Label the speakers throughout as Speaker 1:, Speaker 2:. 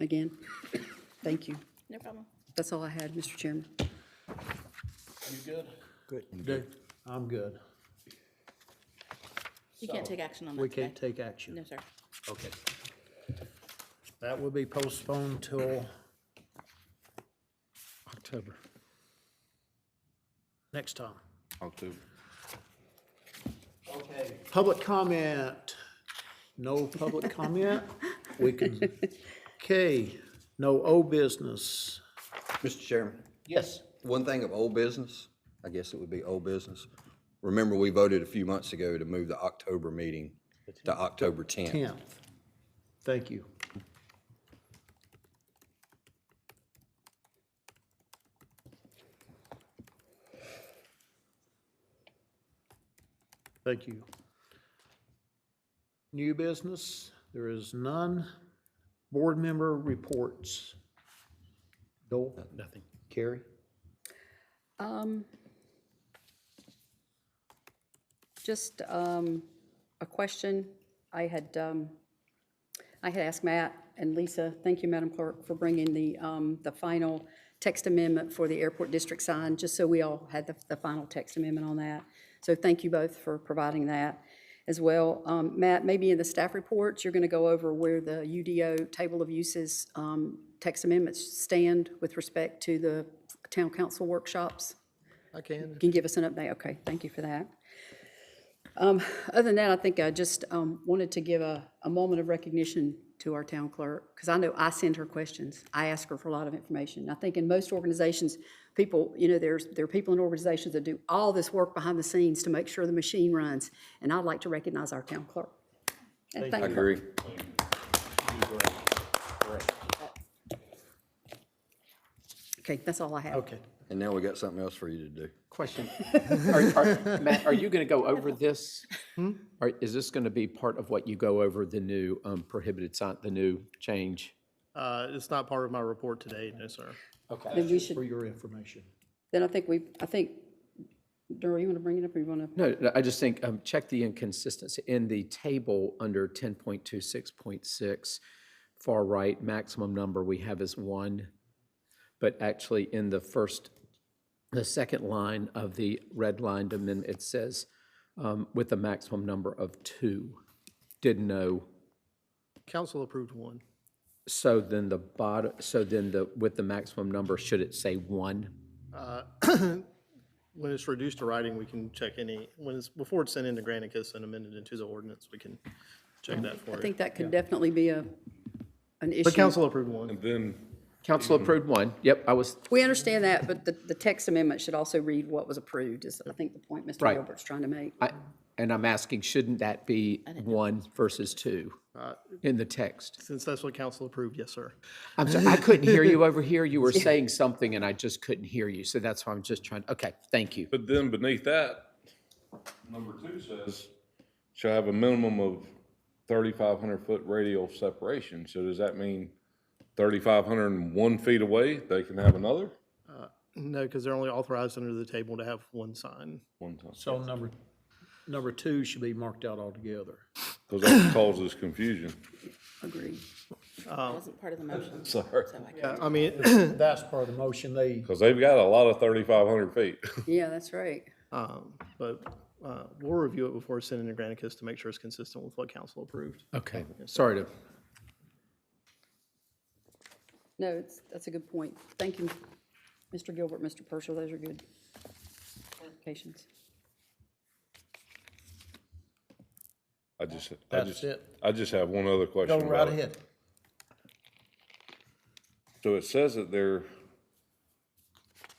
Speaker 1: again. Thank you.
Speaker 2: No problem.
Speaker 1: That's all I had, Mr. Chairman.
Speaker 3: You good?
Speaker 4: Good.
Speaker 3: Dude, I'm good.
Speaker 2: You can't take action on that
Speaker 3: We can't
Speaker 2: today.
Speaker 3: take action.
Speaker 2: No, sir.
Speaker 3: Okay. That will be postponed till
Speaker 5: October.
Speaker 3: next time.
Speaker 5: October.
Speaker 3: Okay. Public comment. No public comment. We can, okay, no old business.
Speaker 6: Mr. Chairman,
Speaker 3: Yes.
Speaker 6: one thing of old business, I guess it would be old business. Remember, we voted a few months ago to move the October meeting to October 10th.
Speaker 3: Tenth. Thank you. Thank you. New business, there is none. Board member reports. Dole? Nothing. Carrie?
Speaker 1: Um, Just um, a question. I had, um, I had asked Matt and Lisa, thank you, Madam Clerk, for bringing the, um, the final text amendment for the airport district sign, just so we all had the, the final text amendment on that. So thank you both for providing that as well. Um, Matt, maybe in the staff reports, you're going to go over where the UDO table of uses um, text amendments stand with respect to the town council workshops?
Speaker 4: I can.
Speaker 1: can give us an update, okay, thank you for that. Um, Other than that, I think I just um, wanted to give a, a moment of recognition to our town clerk, because I know I send her questions. I ask her for a lot of information. I think in most organizations, people, you know, there's, there are people in organizations that do all this work behind the scenes to make sure the machine runs, and I'd like to recognize our town clerk. And
Speaker 6: I
Speaker 1: thank her.
Speaker 6: agree.
Speaker 1: Okay, that's all I have.
Speaker 3: Okay.
Speaker 6: And now we got something else for you to do.
Speaker 5: Question. Are- are- Matt, are you going to go over this? Or is this going to be part of what you go over, the new um, prohibited sign, the new change?
Speaker 7: Uh, It's not part of my report today, no, sir.
Speaker 1: Then we should,
Speaker 3: For your information.
Speaker 1: then I think we, I think, Darrell, you want to bring it up, or you want to?
Speaker 5: No, no, I just think, um, check the inconsistency in the table under 10.26.6, far right, maximum number we have is one. But actually, in the first, the second line of the redlined amendment, it says um, with a maximum number of two. Didn't know.
Speaker 7: Council approved one.
Speaker 5: So then the bottom, so then the, with the maximum number, should it say one?
Speaker 7: When it's reduced to writing, we can check any, when it's, before it's sent into Granicus and amended into the ordinance, we can check that for
Speaker 1: I
Speaker 7: you.
Speaker 1: think that could definitely be a, an issue.
Speaker 7: But council approved one.
Speaker 8: Then,
Speaker 5: Council approved one. Yep, I was,
Speaker 1: We understand that, but the, the text amendment should also read what was approved, is I think the point Mr.
Speaker 5: Right.
Speaker 1: Gilbert's trying to make.
Speaker 5: I- and I'm asking, shouldn't that be one versus two in the text?
Speaker 7: Since that's what council approved, yes, sir.
Speaker 5: I'm sorry, I couldn't hear you over here. You were saying something and I just couldn't hear you. So that's why I'm just trying, okay, thank you.
Speaker 8: but then beneath that, number two says, shall have a minimum of thirty-five hundred foot radial separation. So does that mean thirty-five hundred and one feet away, they can have another?
Speaker 7: No, because they're only authorized under the table to have one sign.
Speaker 8: One time,
Speaker 3: So number, number two should be marked out altogether.
Speaker 8: because that causes confusion.
Speaker 1: Agreed.
Speaker 2: That wasn't part of the motion. so
Speaker 8: Sorry,
Speaker 2: I can't-
Speaker 7: I mean,
Speaker 3: That's part of the motion. They
Speaker 8: because they've got a lot of thirty-five hundred feet.
Speaker 1: Yeah, that's right.
Speaker 7: but uh, we'll review it before it's sent into Granicus to make sure it's consistent with what council approved.
Speaker 5: Okay, sorry to,
Speaker 1: No, it's, that's a good point. Thank you, Mr. Gilbert, Mr. Purcell, those are good clarifications.
Speaker 8: I just, I
Speaker 3: That's
Speaker 8: just,
Speaker 3: it.
Speaker 8: I just have one other question.
Speaker 3: go right
Speaker 8: about it.
Speaker 3: ahead.
Speaker 8: So it says that they're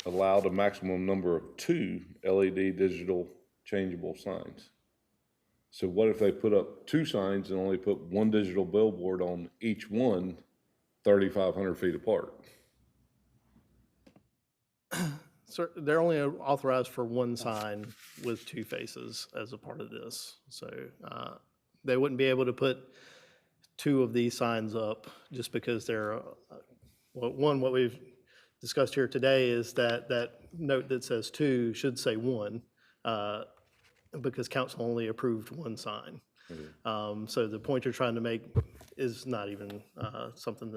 Speaker 8: allowed a maximum number of two LED digital changeable signs. So what if they put up two signs and only put one digital billboard on each one, thirty-five hundred feet apart?
Speaker 7: Sir, they're only authorized for one sign with two faces as a part of this. So uh, they wouldn't be able to put two of these signs up just because they're, uh, well, one, what we've discussed here today is that, that note that says two should say one uh, because council only approved one sign. Um, So the point you're trying to make is not even uh, something